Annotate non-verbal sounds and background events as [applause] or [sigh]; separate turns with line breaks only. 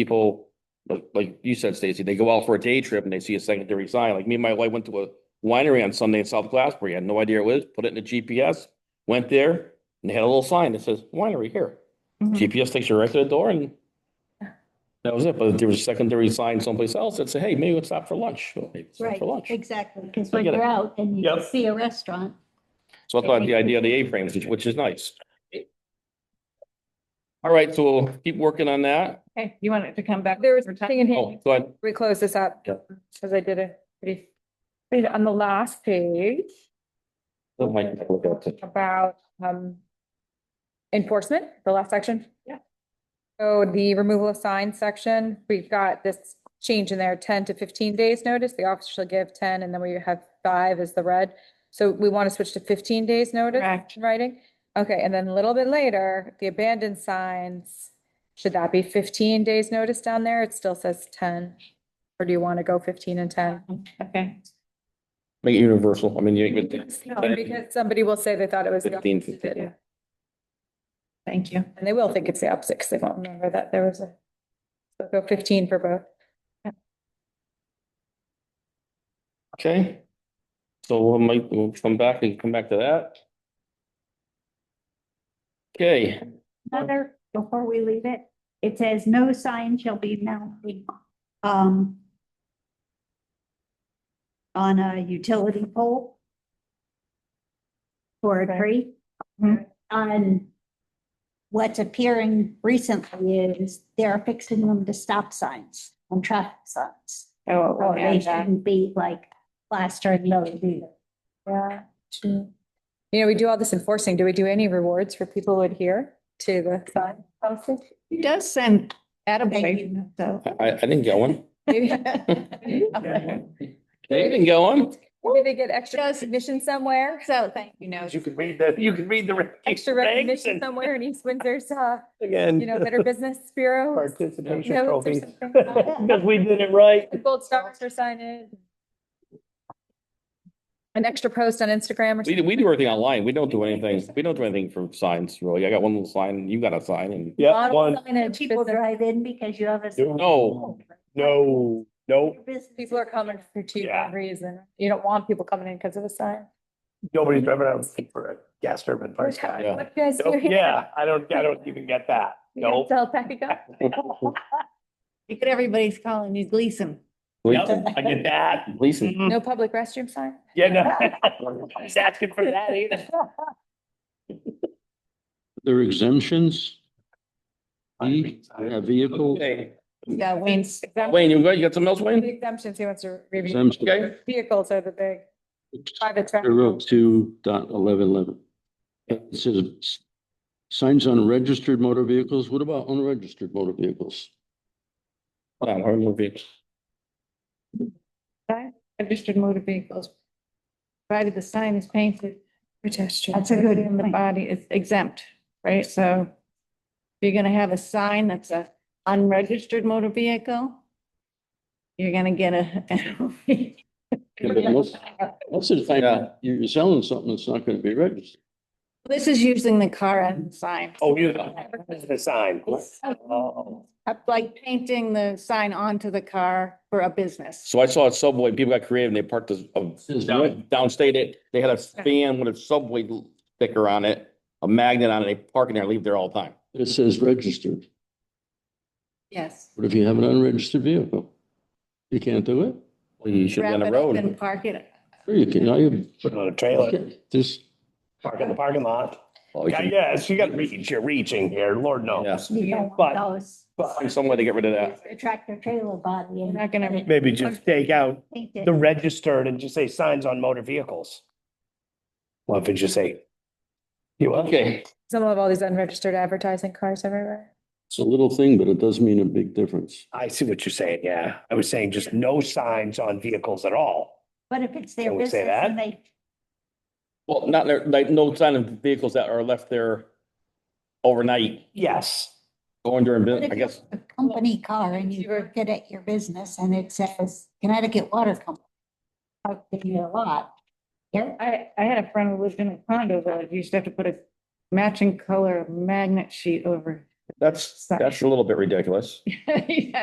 people, like, like you said, Stacy, they go out for a day trip and they see a secondary sign. Like me and my wife went to a winery on Sunday in South Glassbury. I had no idea it was, put it in the GPS, went there and they had a little sign that says winery here.
Mm-hmm.
Mhm.
GPS takes you right to the door and that was it. But there was a secondary sign someplace else that said, hey, maybe let's stop for lunch. Well, maybe stop
Right,
For lunch.
exactly, because
I
when
get it.
you're out and you
Yep.
see a restaurant,
So I thought the idea of the A-frames, which- which is nice. All right, so we'll keep working on that.
Okay, you want it to come back?
There was
for time?
nothing in
Oh,
here.
go ahead.
We close this up
Yeah.
because I did a pretty, pretty- on the last page
Let Mike look at it.
about um enforcement, the last section.
Yeah.
So the removal of signs section, we've got this change in there, ten to fifteen days notice. The officer shall give ten and then we have five is the red. So we want to switch to fifteen days notice
Correct.
in writing. Okay, and then a little bit later, the abandoned signs, should that be fifteen days notice down there? It still says ten. Or do you want to go fifteen and ten?
Okay.
Make it universal. I mean, you.
Because somebody will say they thought it was. the
15,
opposite.
15, yeah.
Thank you.
And they will think it's the opposite because they won't remember that there was a, so go fifteen for both.
Okay. So we might, we'll come back and come back to that. Okay,
another, before we leave it, it says no sign shall be mounted, um, on a utility pole or a
Okay.
tree.
Mhm.
On what's appearing recently is they're fixing them to stop signs and traffic signs.
Oh,
So
we'll
they
add that.
shouldn't be like plastering those either.
Yeah. You know, we do all this enforcing. Do we do any rewards for people who adhere to the sign policy?
He does send
Thank
attaboy, so.
I, I didn't get one.
Maybe [laughs]
They didn't get one.
maybe they get extra recognition somewhere,
So, thank you, no.
You can read the, you can read the.
extra recognition somewhere in East Windsor's, uh, you
[laughs]
know,
Again.
Better Business Bureau.
Participation
notes or
trophies.
[laughs]
something.
Because we did it right.
Gold stars for signage. An extra post on
We,
Instagram or something.
do- we do everything online. We don't do anything. We don't do anything for signs, really. I got one little sign, you got a sign and.
Yeah,
Bottle
one,
signage
People
business.
drive in because you have a.
No.
no, no,
Your business
People are coming for two
Yeah.
reason. You don't want people coming in because of a sign.
nobody's driving out for a gas turbine
[laughs]
fire
What
guy.
Yeah.
you guys do here?
[laughs] Yeah, I don't, I don't even get that.
You guys
No.
Sell pack of
[laughs]
gum?
You get everybody's calling you Gleason.
Gleason,
I get
[laughs]
that.
Gleason.
No public restroom sign? [laughs]
Yeah, no. I was asking for that either.
Their exemptions, E, a
All
vehicle
Okay.
Yeah, Wayne's.
Wayne, you got, you got something else,
The
Wayne?
exemptions, he wants to review.
exemption.
Okay.
Vehicles are the big private.
They're up
traffic.
to dot eleven eleven. It says s- signs on registered motor vehicles. What about unregistered motor vehicles?
Hold on, I'm moving.
Registered motor vehicles. Provided the sign is painted. Pedestrian.
That's a good
In the
point.
body is exempt, right? So if you're gonna have a sign that's a unregistered motor vehicle, you're gonna get a. [laughs]
Yeah, but Most most of the time,
Yeah.
you're selling something that's not going to be registered.
This is using the car and sign.
Oh, you, this is the sign. Oh.
Up like painting the sign onto the car for a business.
So I saw at Subway, people got creative and they parked this, um,
Says what?
downstate it, they had a fan with a Subway sticker on it, a magnet on it, they park in there, and leave there all the time.
It says registered.
Yes.
What if you have an unregistered vehicle? You can't do it?
You should be on
Wrap
the
it up and
road.
park it.
Sure you can. Now you,
Put it on a trailer,
this,
park in the parking lot.
Oh, you
Yeah,
should-
Yes, you gotta reach, you're reaching here, Lord
Yeah.
knows.
You don't want
But-
those.
But
Find some way to get rid of that.
It's a Tractor trailer body.
You're not gonna-
Maybe just take out the
The
registered and just say signs on motor vehicles. Well, if it just say? You,
Okay,
Some of all these unregistered advertising cars everywhere.
it's a little thing, but it does mean a big difference.
I see what you're saying, yeah. I was saying just no signs on vehicles at all.
But if it's their
Can we
business
say
and they,
well, not, there- like, no sign of vehicles that are left there overnight,
Yes.
going during,
But
bu-
if
I
you-
guess.
a company car and you
You were-
work it at your business and it says Connecticut Water Company. Out in your lot. Yeah,
I, I had a friend who lived in a condo that used to have to put a matching color magnet sheet over
That's,
Sorry.
that's a little bit ridiculous.
[laughs] Yeah,